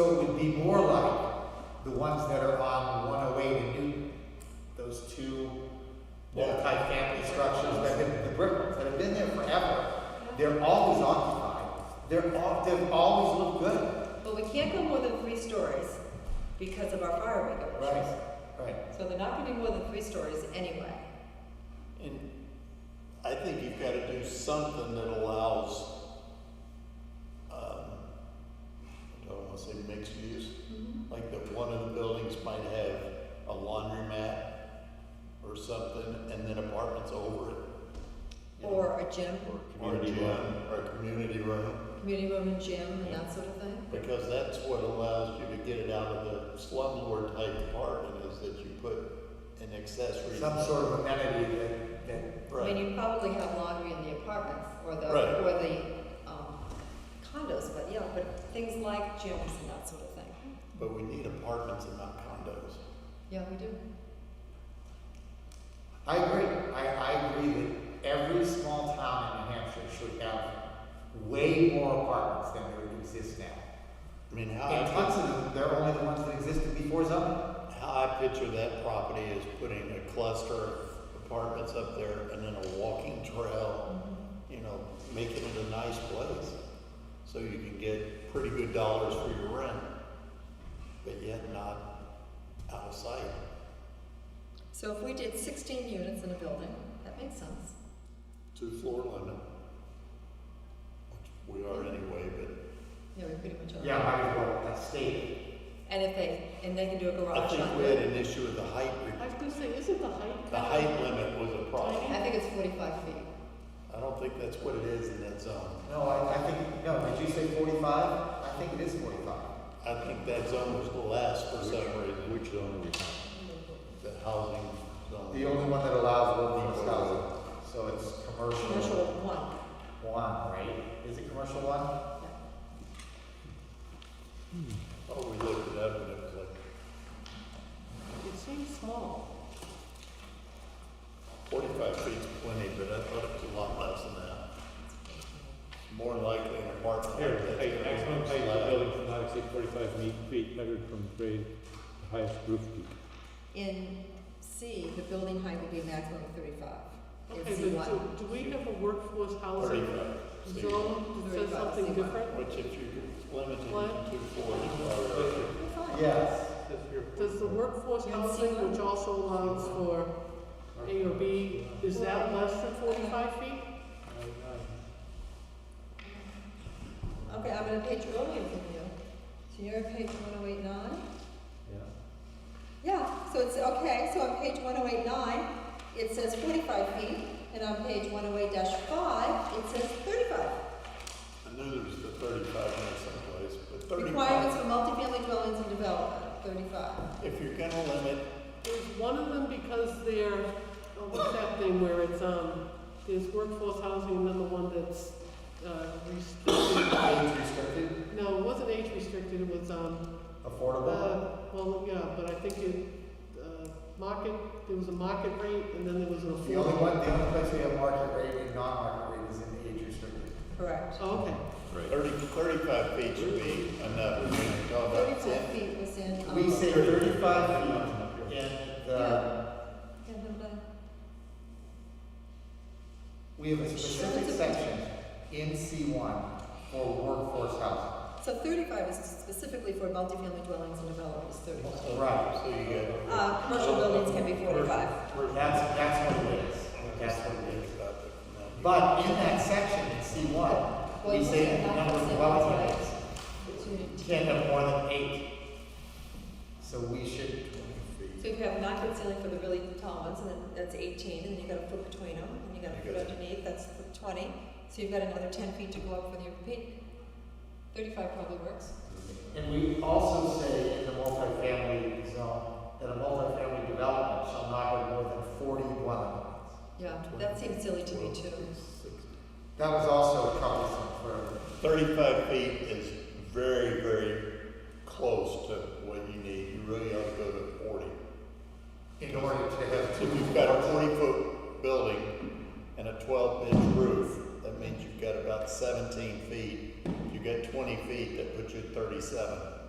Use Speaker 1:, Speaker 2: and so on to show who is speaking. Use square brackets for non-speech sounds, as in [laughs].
Speaker 1: so it would be more like the ones that are on one oh eight and Newton. Those two multi-family structures that have been, the brick ones that have been there forever. They're always occupied. They're all, they've always looked good.
Speaker 2: But we can't go more than three stories because of our fire regulations.
Speaker 1: Right, right.
Speaker 2: So they're not gonna be more than three stories anyway.
Speaker 3: And I think you've got to do something that allows, um, I don't want to say mixed use, like that one of the buildings might have a laundromat or something, and then apartments over it. you know,
Speaker 2: Or a gym,
Speaker 3: Or a gym, or a community room,
Speaker 2: community room and gym and that sort of thing.
Speaker 3: because that's what allows you to get it out of the slumlord type apartment, is that you put an accessory.
Speaker 1: Some sort of amenity that, that
Speaker 2: I mean,
Speaker 3: Right,
Speaker 2: you probably have laundry in the apartments or the,
Speaker 3: Right.
Speaker 2: or the um, condos, but yeah, but things like gyms and that sort of thing.
Speaker 3: but we need apartments and not condos.
Speaker 2: Yeah, we do.
Speaker 1: I agree. I, I agree that every small town in New Hampshire should have way more apartments than there exist now.
Speaker 3: I mean, how.
Speaker 1: And tons of them, they're only the ones that existed before zoning.
Speaker 3: How I picture that property is putting a cluster of apartments up there and then a walking trail, you know, making it a nice place. So you can get pretty good dollars for your rent, but yet not out of sight.
Speaker 2: So if we did sixteen units in a building, that makes sense.
Speaker 3: Two floor limit. which We are anyway, but
Speaker 2: Yeah, we pretty much are.
Speaker 1: Yeah, might as well, that's state.
Speaker 2: And if they, and they can do a
Speaker 3: I
Speaker 2: garage
Speaker 3: think
Speaker 2: on
Speaker 3: we had
Speaker 2: it.
Speaker 3: an issue with the height.
Speaker 4: I was gonna say, isn't the height?
Speaker 3: The height limit was a problem.
Speaker 2: I think it's forty-five feet.
Speaker 3: I don't think that's what it is in that zone.
Speaker 1: No, I, I think, no, did you say forty-five? I think it is forty-five.
Speaker 3: I think that zone was the last for some reason.
Speaker 5: Which zone are we talking?
Speaker 3: the housing zone.
Speaker 1: The only one that allows workforce housing. So it's commercial.
Speaker 2: Commercial one.
Speaker 1: One, right? Is it commercial one?
Speaker 3: Oh, we looked it up and it was like
Speaker 4: It seems small.
Speaker 3: forty-five feet's plenty, but I thought it was a lot less than that. More than likely an apartment.
Speaker 5: Here,
Speaker 3: like that's
Speaker 5: height,
Speaker 3: gonna be
Speaker 5: maximum height of
Speaker 3: slab.
Speaker 5: building should not exceed forty-five me- feet measured from grade to highest roof peak.
Speaker 2: In C, the building height would be maximum of thirty-five.
Speaker 4: Okay,
Speaker 2: In C
Speaker 4: but
Speaker 2: one.
Speaker 4: do, do we have a workforce housing
Speaker 3: Thirty-five. See,
Speaker 4: zone that says something
Speaker 2: Thirty-five,
Speaker 4: different?
Speaker 3: Which if you're limited
Speaker 4: What?
Speaker 3: to forty, or
Speaker 1: Yes.
Speaker 4: Does the workforce
Speaker 2: Yeah,
Speaker 4: housing,
Speaker 2: C1.
Speaker 4: which also allows for A or B, is that less than forty-five feet?
Speaker 2: Okay, I'm gonna page earlier than you. So you're on page one oh eight nine? Yeah, so it's, okay, so on page one oh eight nine, it says forty-five feet, and on page one oh eight five, it says thirty-five.
Speaker 3: I knew there was the thirty-five in someplace, but
Speaker 2: Requirements
Speaker 3: thirty-five.
Speaker 2: for multifamily dwellings and development, thirty-five.
Speaker 3: If you're gonna limit,
Speaker 4: There's one of them because they're, oh, what's that thing where it's, um, there's workforce housing and then the one that's, uh, restricted.
Speaker 1: Age restricted,
Speaker 4: No, it wasn't age restricted, it was, um,
Speaker 1: affordable.
Speaker 4: uh, well, yeah, but I think it, uh, market, there was a market rate and then there was an
Speaker 1: The only
Speaker 4: affordable.
Speaker 1: one, the only place we have market rate and non-market rate is in age restricted.
Speaker 2: Correct.
Speaker 4: Oh, Okay,
Speaker 3: thirty, thirty-five feet should be enough. We're gonna go about
Speaker 2: Thirty-five
Speaker 3: 10.
Speaker 2: feet was in, um.
Speaker 1: We say thirty-five feet in the,
Speaker 2: Yeah, no, no.
Speaker 1: we have a specific section in C one for workforce housing.
Speaker 2: So thirty-five is specifically for multifamily dwellings and developments, thirty-five.
Speaker 3: So-
Speaker 1: Right.
Speaker 3: So you got.
Speaker 2: Uh, commercial buildings can be forty-five.
Speaker 1: That's, that's what it is, that's what it is.
Speaker 3: But
Speaker 1: But in that section in C one, we say that the number of dwelling units
Speaker 2: So
Speaker 1: can't have more than eight. So we should,
Speaker 2: if you have not good ceiling for the really tall ones, and then that's eighteen, and then you got a foot between them, and you got a
Speaker 3: You
Speaker 2: foot
Speaker 3: got-
Speaker 2: underneath, that's twenty. So you've got another ten feet to go up with your peak. Thirty-five probably works.
Speaker 1: and we also say in the multifamily zone that a multifamily development shall not have more than forty dwelling units.
Speaker 2: Yeah, that seems silly to me too.
Speaker 1: That was also troublesome for
Speaker 3: Thirty-five feet is very, very close to what you need. You really ought to go to forty.
Speaker 1: in order to have
Speaker 3: If
Speaker 1: two. [laughs]
Speaker 3: you've got a forty-foot building and a twelve-inch roof, that means you've got about seventeen feet. If you got twenty feet, that puts you at thirty-seven.